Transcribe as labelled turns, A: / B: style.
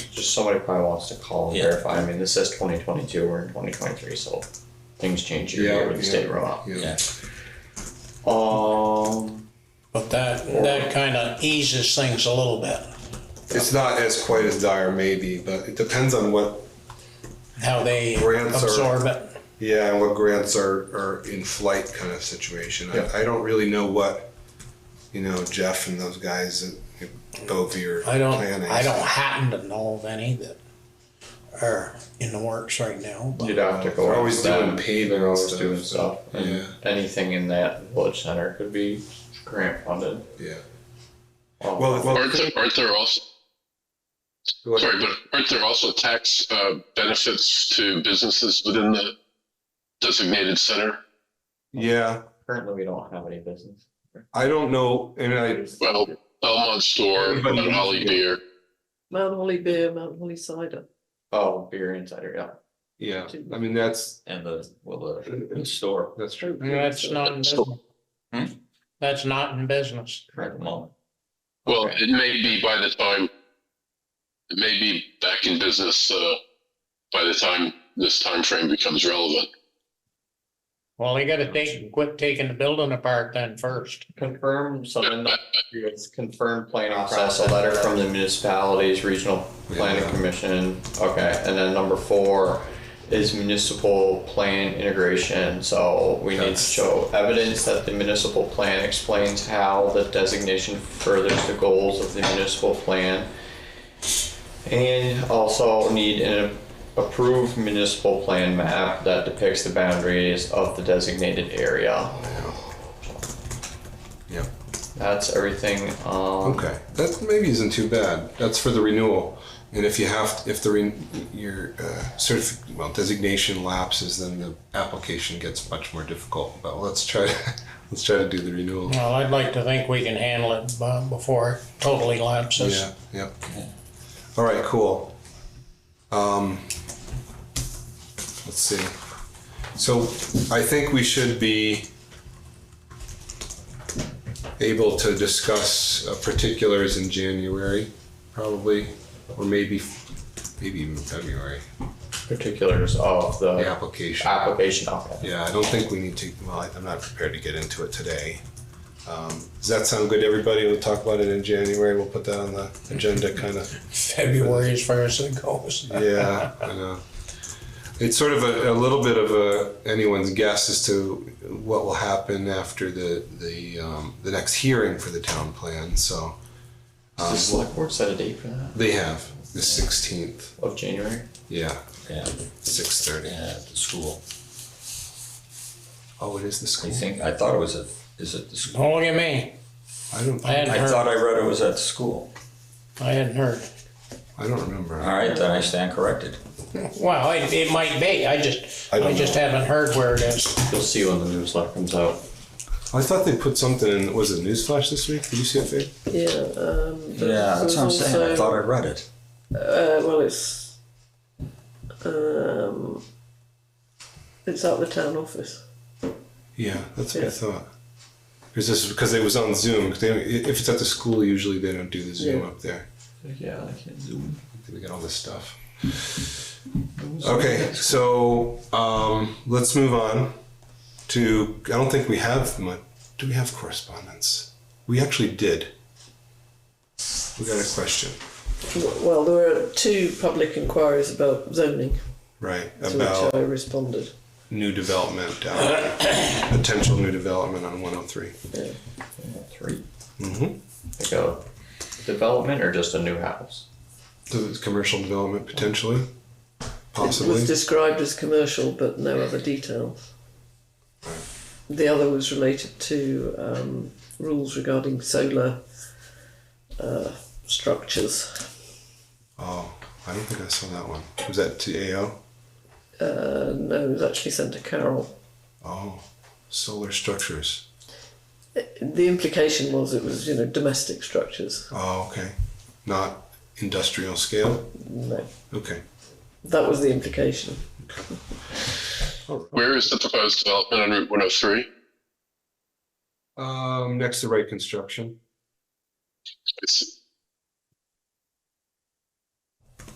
A: just somebody probably wants to call and
B: Yeah.
A: verify. I mean, this says 2022, we're in 2023, so things change year to year with the state rollout.
B: Yeah.
A: Um,
C: But that, that kind of eases things a little bit,
D: It's not as quite as dire, maybe, but it depends on what,
C: how they
D: Grants are-
C: absorb it.
D: yeah, and what grants are, are in flight kind of situation.
A: Yeah.
D: I, I don't really know what, you know, Jeff and those guys at Bovee are
C: I don't,
D: planning.
C: I don't happen to know of any that are in the works right now, but
A: you'd have to go.
D: They're
A: out
D: always
A: with them.
D: doing paving
A: They're always
D: stuff,
A: doing
D: so,
A: stuff. and
D: yeah.
A: Anything in that village center could be grant funded.
D: Yeah.
A: Um,
D: Well, well,
E: Aren't there, aren't there also, sorry, but aren't there also tax uh, benefits to businesses within the designated center?
D: yeah.
A: currently we don't have any business.
D: I don't know, and I,
E: Well, Belmont Store,
D: Everybody
E: Mount
D: knows
E: Holly
D: you.
E: Beer.
F: Mount Holly beer, Mount Holly cider.
A: Oh, beer insider, yeah,
D: yeah, I mean, that's,
A: and the well the store
D: that's true.
C: that's not in business.
A: Hmm?
C: That's not in business.
A: current moment.
E: Well,
A: Okay.
E: it may be by the time, it may be back in business uh, by the time this time frame becomes relevant.
C: Well, they gotta take, quit taking the building apart then first.
A: Confirm something. It's confirmed planning process, a letter from the municipalities, regional planning
D: Yeah.
A: commission. Okay, and then number four is municipal plan integration. So we need to
B: That's-
A: show evidence that the municipal plan explains how the designation furthers the goals of the municipal plan. And also need an approved municipal plan map that depicts the boundaries of the designated area.
D: Yeah.
A: That's everything. Um,
D: Okay, that maybe isn't too bad. That's for the renewal, and if you have, if the re, your uh, certif- well designation lapses, then the application gets much more difficult. But let's try, let's try to do the renewal.
C: Well, I'd like to think we can handle it uh, before it totally lapses.
D: Yeah, yeah. All right, cool. Um, let's see. So I think we should be able to discuss uh, particulars in January, probably, or maybe, maybe even February,
A: Particulars of the
D: the application.
A: application. Okay.
D: Yeah, I don't think we need to, well, I'm not prepared to get into it today. Um, Does that sound good to everybody? We'll talk about it in January. We'll put that on the agenda kind of
C: February as far as it goes.
D: yeah, I know. It's sort of a, a little bit of a anyone's guess as to what will happen after the the um, the next hearing for the town plan. So
A: Does the select board set a date for that
D: they have the sixteenth.
A: of January?
D: Yeah,
B: Yeah,
D: six thirty.
B: yeah, at the school.
D: Oh, it is the
B: I
D: school.
B: think, I thought it was at, is it the school?
C: Don't Oh, look at me.
D: I don't.
C: I hadn't
B: I
C: heard,
B: thought I read it was at the school.
C: I hadn't heard.
D: I don't remember.
B: All right, then I stand corrected.
C: Well, it, it might be. I just,
D: I
C: I
D: don't
C: just
D: know.
C: haven't heard where it is.
A: You'll see when the newsletter comes out.
D: I thought they put something in. Was it newsflash this week? Did you see it, Faye?
F: Yeah, um,
B: Yeah, that's what I'm saying, I
F: Also-
B: thought I read it.
F: uh, well, it's, um, it's at the town office.
D: Yeah, that's what I
F: Yeah.
D: thought. Because this because it was on Zoom. 'cause They, if it's at the school, usually they don't do the Zoom
F: Yeah.
D: up there.
A: Yeah, I can't zoom.
D: We got all this stuff. Okay, so um, let's move on to. I don't think we have much. Do we have correspondence? We actually did. We got a question,
F: Well, there were two public inquiries about zoning
D: right,
F: to
D: about
F: which I responded.
D: new development, down potential new development on 103.
F: Yeah.
A: 3
D: Mm-hmm.
A: Like a development or just a new house?
D: So it's commercial development potentially,
F: It
D: possibly.
F: was described as commercial, but no other details. The other was related to um, rules regarding solar uh, structures.
D: oh, I don't think I saw that one. Was that to AO?
F: Uh, no, it was actually sent to Carol.
D: Oh, solar structures.
F: The implication was it was, you know, domestic structures.
D: Oh, okay. Not industrial scale?
F: No,
D: Okay.
F: that was the implication.
E: Where is the proposed development on Route 103?
D: Um, next to right construction.
E: It's,